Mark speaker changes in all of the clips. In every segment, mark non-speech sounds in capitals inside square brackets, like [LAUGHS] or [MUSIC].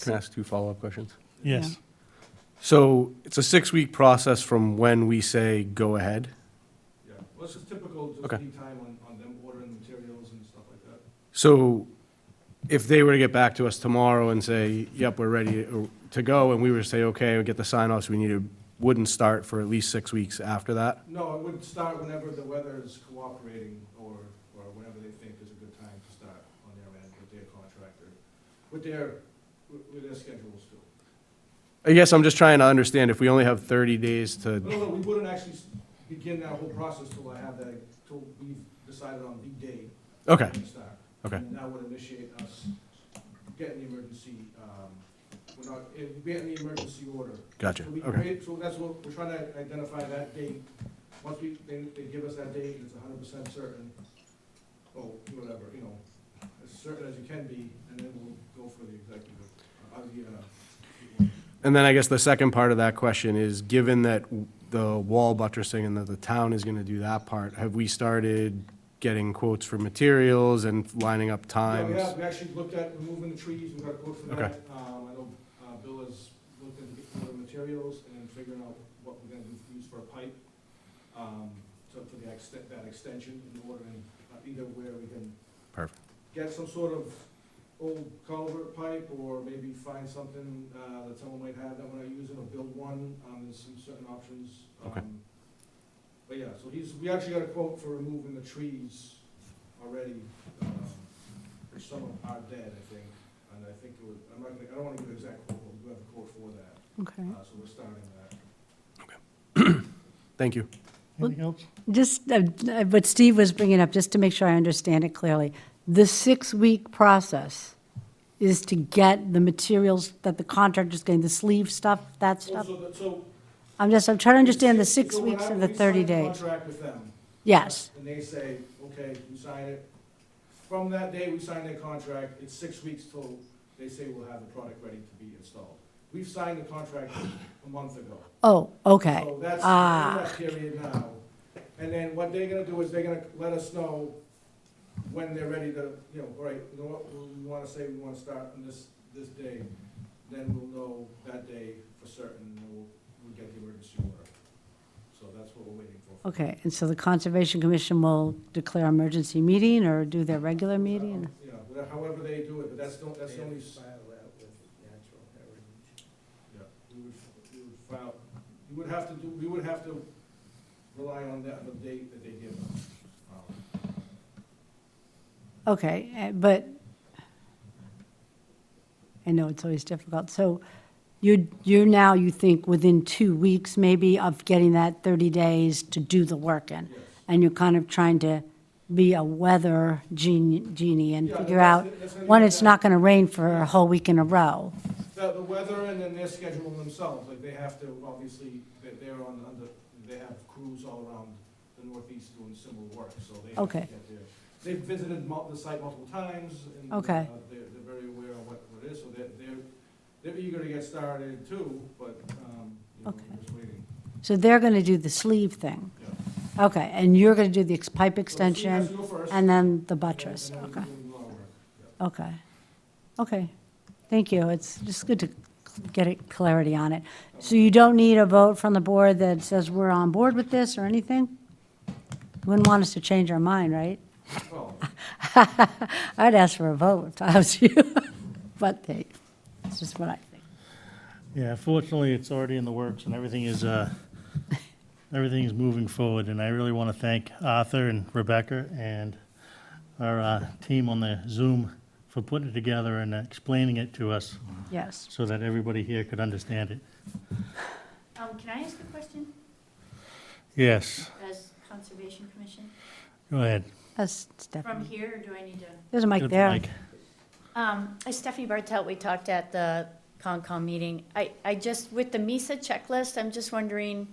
Speaker 1: Can I ask two follow-up questions?
Speaker 2: Yes.
Speaker 1: So it's a six-week process from when we say go ahead?
Speaker 3: Yeah, well, it's just typical, just
Speaker 1: Okay.
Speaker 3: lead time on, on them ordering materials and stuff like that.
Speaker 1: So if they were to get back to us tomorrow and say, yep, we're ready to go, and we were to say, okay, we get the sign-offs, we need a, wouldn't start for at least six weeks after that?
Speaker 3: No, it would start whenever the weather is cooperating or, or whenever they think is a good time to start on their end with their contractor, with their, with with their schedules too.
Speaker 1: I guess I'm just trying to understand if we only have thirty days
Speaker 3: No,
Speaker 1: to,
Speaker 3: no, we wouldn't actually s- begin that whole process till I have that, till we've decided on the day
Speaker 1: okay,
Speaker 3: to start.
Speaker 1: okay,
Speaker 3: And that would initiate us getting the emergency, um, we're not, eh, getting the emergency order.
Speaker 1: gotcha,
Speaker 3: So we
Speaker 1: okay,
Speaker 3: create, so that's what, we're trying to identify that date. Once we, they, they give us that date, and it's hundred percent certain, or whatever, you know, as certain as you can be, and then we'll go for the executive. I was given a,
Speaker 1: And then I guess the second part of that question is, given that the wall buttressing and that the town is gonna do that part, have we started getting quotes for materials and lining up
Speaker 3: Yeah, we
Speaker 1: times?
Speaker 3: have, we actually looked at removing the trees, we got a quote for
Speaker 1: Okay.
Speaker 3: that. Um, I know, uh, Bill has looked into getting the materials and figuring out what we're gonna do- use for a pipe, um, to, for the extent, that extension in order and uh, either where we can.
Speaker 1: Perfect.
Speaker 3: Get some sort of old culvert pipe or maybe find something, uh, that someone might have that we're not using or build one. Um, there's some certain options.
Speaker 1: Okay.
Speaker 3: Um, But yeah, so he's, we actually got a quote for removing the trees already, um, some of them are dead, I think, and I think it would, I'm not gonna, I don't wanna give an exact quote, but we do have a quote for that,
Speaker 4: Okay.
Speaker 3: uh, so we're starting that.
Speaker 1: Thank you.
Speaker 2: Anything else?
Speaker 4: Just, uh, uh, what Steve was bringing up, just to make sure I understand it clearly, the six-week process is to get the materials that the contractor's getting, the sleeve stuff, that stuff?
Speaker 3: Also, the- so.
Speaker 4: I'm just, I'm trying to understand the
Speaker 3: so
Speaker 4: six
Speaker 3: when
Speaker 4: weeks
Speaker 3: I-
Speaker 4: and the
Speaker 3: we sign
Speaker 4: 30
Speaker 3: a
Speaker 4: days.
Speaker 3: Contract with them,
Speaker 4: Yes,
Speaker 3: and they say, okay, you sign it, from that day we sign that contract, it's six weeks till they say we'll have the product ready to be installed. We've signed the contract a month ago.
Speaker 4: oh, okay,
Speaker 3: So that's
Speaker 4: Ah.
Speaker 3: in that period now. And then what they're gonna do is they're gonna let us know when they're ready to, you know, all right, you know what, we wanna say we wanna start on this, this day. Then we'll know that day for certain, and we'll, we'll get the emergency order. So that's what we're waiting for.
Speaker 4: okay. And so the Conservation Commission will declare emergency meeting or do their regular meeting?
Speaker 3: You know, whatever- however they do it, but that's, the- that's the only, s- yeah, we would, we would file, you would have to do, we would have to rely on that, the date that they give us. Um,
Speaker 4: Okay, eh, but I know it's always difficult. So you're, you're now, you think, within two weeks maybe of getting that 30 days to do the work in?
Speaker 3: Yes.
Speaker 4: And you're kind of trying to be a weather genie genie and
Speaker 3: Yeah,
Speaker 4: figure
Speaker 3: that's-
Speaker 4: out,
Speaker 3: that's what I
Speaker 4: when
Speaker 3: mean,
Speaker 4: it's
Speaker 3: that-
Speaker 4: not going to rain for a whole week in a row.
Speaker 3: The, the weather and then their schedule themselves, like they have to, obviously, they're, they're on, under, they have crews all around the northeast doing similar work, so they. have to
Speaker 4: Okay.
Speaker 3: get there. They've visited mul, the site multiple times and.
Speaker 4: Okay.
Speaker 3: uh, They're, they're very aware of what, what it is, so they're, they're, they're eager to get started too, but, um, you know,
Speaker 4: Okay.
Speaker 3: we're just waiting.
Speaker 4: So they're going to do the sleeve thing.
Speaker 3: Yeah. So
Speaker 4: Okay, and you're going to do the ex- pipe
Speaker 3: she has to
Speaker 4: extension
Speaker 3: go first,
Speaker 4: and then the
Speaker 3: and then-
Speaker 4: buttress,
Speaker 3: and then
Speaker 4: okay.
Speaker 3: we're doing lawn work.
Speaker 4: Okay, okay, thank you, it's just good to cl- get it clarity on it. So you don't need a vote from the board that says we're on board with this or anything? Wouldn't want us to change our mind, right? [LAUGHS]
Speaker 3: Well,
Speaker 4: I'd ask for a vote if I was [LAUGHS] you, but hey, it's just what I think.
Speaker 2: Yeah, fortunately, it's already in the works and everything is, uh, everything is moving forward. And I really want to thank Arthur and Rebecca and our uh, team on the Zoom for putting it together and explaining it to us
Speaker 4: Yes,
Speaker 2: so that everybody here could understand it.
Speaker 5: Um, can I ask a question
Speaker 2: Yes,
Speaker 5: as Conservation Commission?
Speaker 2: go ahead.
Speaker 4: that's
Speaker 5: From
Speaker 4: Stephanie.
Speaker 5: here, or do I need to?
Speaker 4: There's a mic
Speaker 2: Good,
Speaker 4: there.
Speaker 2: Mike.
Speaker 5: Um, it's Stephanie Bartelt, we talked at the Concom meeting. I, I just, with the MISA checklist, I'm just wondering,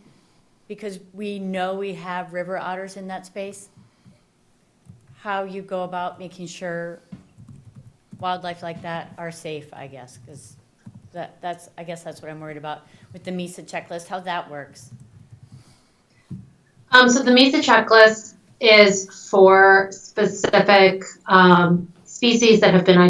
Speaker 5: because we know we have river otters in that space, how you go about making sure wildlife like that are safe, I guess, because that, that's, I guess that's what I'm worried about with the MISA checklist, how that works.
Speaker 6: Um, so the MESA checklist is for specific um, species that have been